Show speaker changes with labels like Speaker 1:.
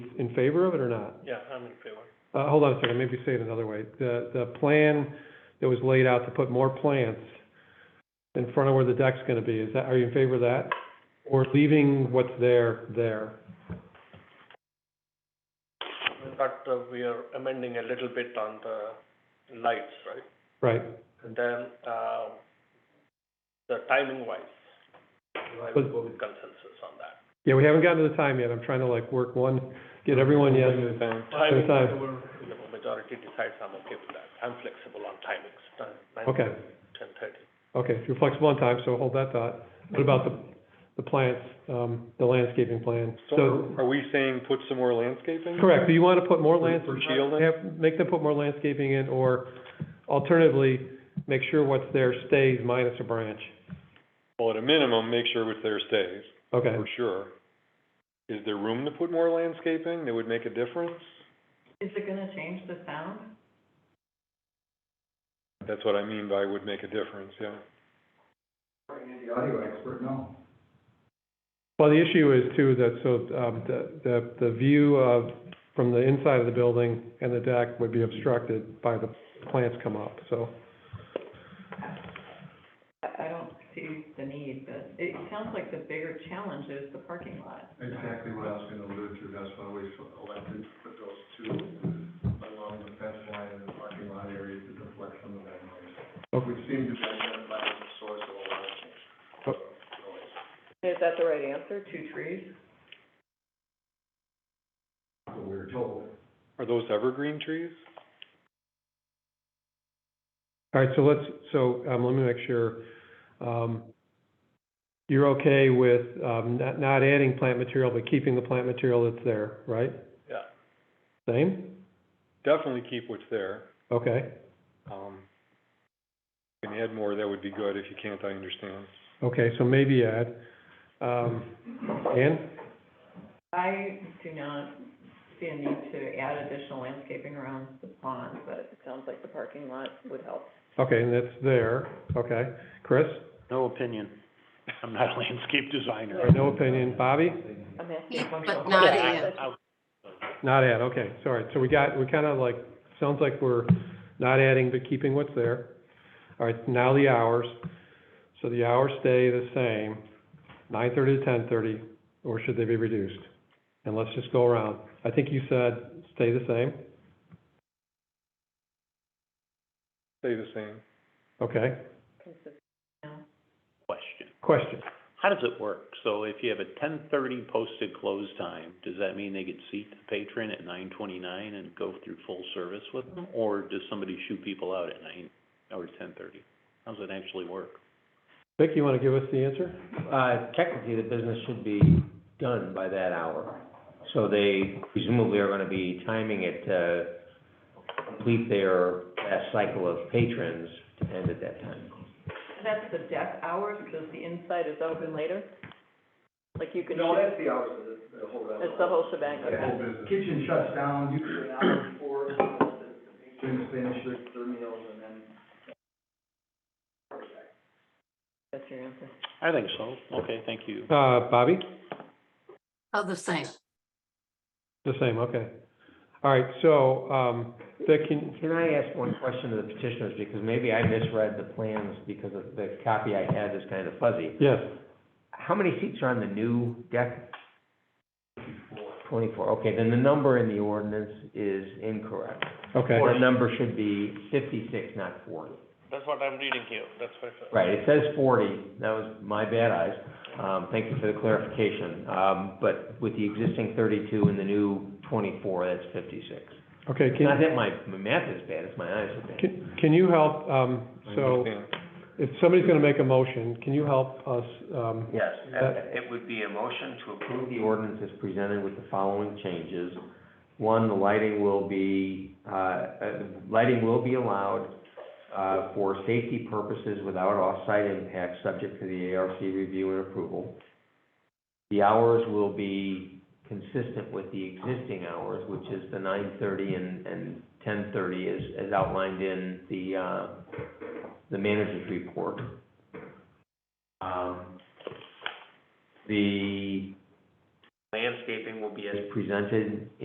Speaker 1: in favor of it or not?
Speaker 2: Yeah, I'm in favor.
Speaker 1: Uh, hold on a second, maybe say it another way. The, the plan that was laid out to put more plants in front of where the deck's gonna be, is that, are you in favor of that? Or leaving what's there, there?
Speaker 2: But uh, we are amending a little bit on the lights, right?
Speaker 1: Right,
Speaker 2: And then, uh, the timing wise, I would go with consensus on that.
Speaker 1: yeah, we haven't gotten to the time yet, I'm trying to like work one, get everyone yes.
Speaker 2: Timing,
Speaker 1: time.
Speaker 2: the majority decides, I'm okay with that. I'm flexible on timings, time, nine
Speaker 1: Okay.
Speaker 2: to ten thirty.
Speaker 1: Okay, if you're flexible on time, so hold that thought. What about the, the plants, um, the landscaping plan? So,
Speaker 3: So are we saying put some more landscaping?
Speaker 1: correct, do you wanna put more
Speaker 3: For-
Speaker 1: lands-
Speaker 3: for shielding?
Speaker 1: have- Make them put more landscaping in, or alternatively, make sure what's there stays minus a branch.
Speaker 3: Well, at a minimum, make sure it's there stays,
Speaker 1: Okay,
Speaker 3: for sure. Is there room to put more landscaping that would make a difference?
Speaker 4: Is it gonna change the sound?
Speaker 3: That's what I mean by would make a difference, yeah.
Speaker 5: The audio expert, no.
Speaker 1: well, the issue is too, that, so, um, the, the, the view of, from the inside of the building and the deck would be obstructed by the plants come up, so.
Speaker 4: I, I don't see the need, but it sounds like the bigger challenge is the parking lot.
Speaker 5: Exactly what I was gonna allude to, that's why we elected to put those two along the fence line and the parking lot area to deflect some of that noise.
Speaker 1: Okay.
Speaker 5: Which seemed to be identified as the source of a lot of change.
Speaker 1: Oh.
Speaker 5: Noise.
Speaker 4: Is that the right answer, two trees?
Speaker 5: That's What we were told.
Speaker 3: Are those evergreen trees?
Speaker 1: All right, so let's, so, um, let me make sure, um, you're okay with, um, not, not adding plant material, but keeping the plant material that's there, right?
Speaker 2: Yeah.
Speaker 1: Same?
Speaker 3: Definitely keep what's there.
Speaker 1: Okay,
Speaker 3: Um, if you can add more, that would be good. If you can't, I understand.
Speaker 1: okay, so maybe add, um, Ann?
Speaker 4: I do not see a need to add additional landscaping around the pond, but it sounds like the parking lot would help.
Speaker 1: Okay, and that's there, okay. Chris?
Speaker 6: No opinion. I'm not a landscape designer.
Speaker 1: All right, No opinion. Bobby?
Speaker 4: I'm asking
Speaker 7: Keep,
Speaker 4: a functional
Speaker 7: but not
Speaker 4: question.
Speaker 7: add.
Speaker 6: I- I-
Speaker 1: Not add, okay, sorry. So we got, we kind of like, sounds like we're not adding, but keeping what's there. All right, now the hours. So the hours stay the same, nine thirty to ten thirty, or should they be reduced? And let's just go around. I think you said stay the same,
Speaker 3: Stay the same.
Speaker 1: okay?
Speaker 4: Consistent.
Speaker 6: Question.
Speaker 1: Question,
Speaker 6: How does it work? So if you have a ten thirty posted close time, does that mean they could seat the patron at nine twenty-nine and go through full service with them? Or does somebody shoot people out at nine or ten thirty? How does it actually work?
Speaker 1: Vic, you want to give us the answer?
Speaker 8: Uh, technically, the business should be done by that hour. So they presumably are gonna be timing it to complete their last cycle of patrons to end at that time.
Speaker 4: That's the deck hours, because the inside is open later? Like you could,
Speaker 5: No,
Speaker 4: shoot-
Speaker 5: that's the hours of the, the whole.
Speaker 4: it's the whole shebang,
Speaker 5: Yeah,
Speaker 4: okay.
Speaker 5: Kitchen shuts down usually an hour before, things finish their, their meals and then
Speaker 4: That's your answer.
Speaker 6: I think so. Okay, thank you.
Speaker 1: Uh, Bobby?
Speaker 7: Oh, the same.
Speaker 1: The same, okay. All right, so, um, Vic, can,
Speaker 8: Can I ask one question to the petitioners, because maybe I misread the plans because of the copy I had is kind of fuzzy.
Speaker 1: yes,
Speaker 8: How many seats are on the new deck? Twenty-four, okay, then the number in the ordinance is incorrect.
Speaker 1: okay.
Speaker 8: The number should be fifty-six, not forty.
Speaker 2: That's what I'm reading here, that's what.
Speaker 8: Right, it says forty, that was my bad eyes, um, thank you for the clarification, um, but with the existing thirty-two and the new twenty-four, that's fifty-six.
Speaker 1: Okay,
Speaker 8: Not
Speaker 1: can,
Speaker 8: that my, my math is bad, it's my eyes are bad.
Speaker 1: can, can you help, um,
Speaker 3: I
Speaker 1: so
Speaker 3: understand.
Speaker 1: if somebody's going to make a motion, can you help us, um,
Speaker 8: Yes, uh, it would be a motion to approve the ordinance as presented with the following changes. One, the lighting will be, uh, uh, lighting will be allowed uh, for safety purposes without off-site impact, subject to the ARC review and approval. The hours will be consistent with the existing hours, which is the nine thirty and, and ten thirty as, as outlined in the, uh, the manager's report. Um, the landscaping will be as presented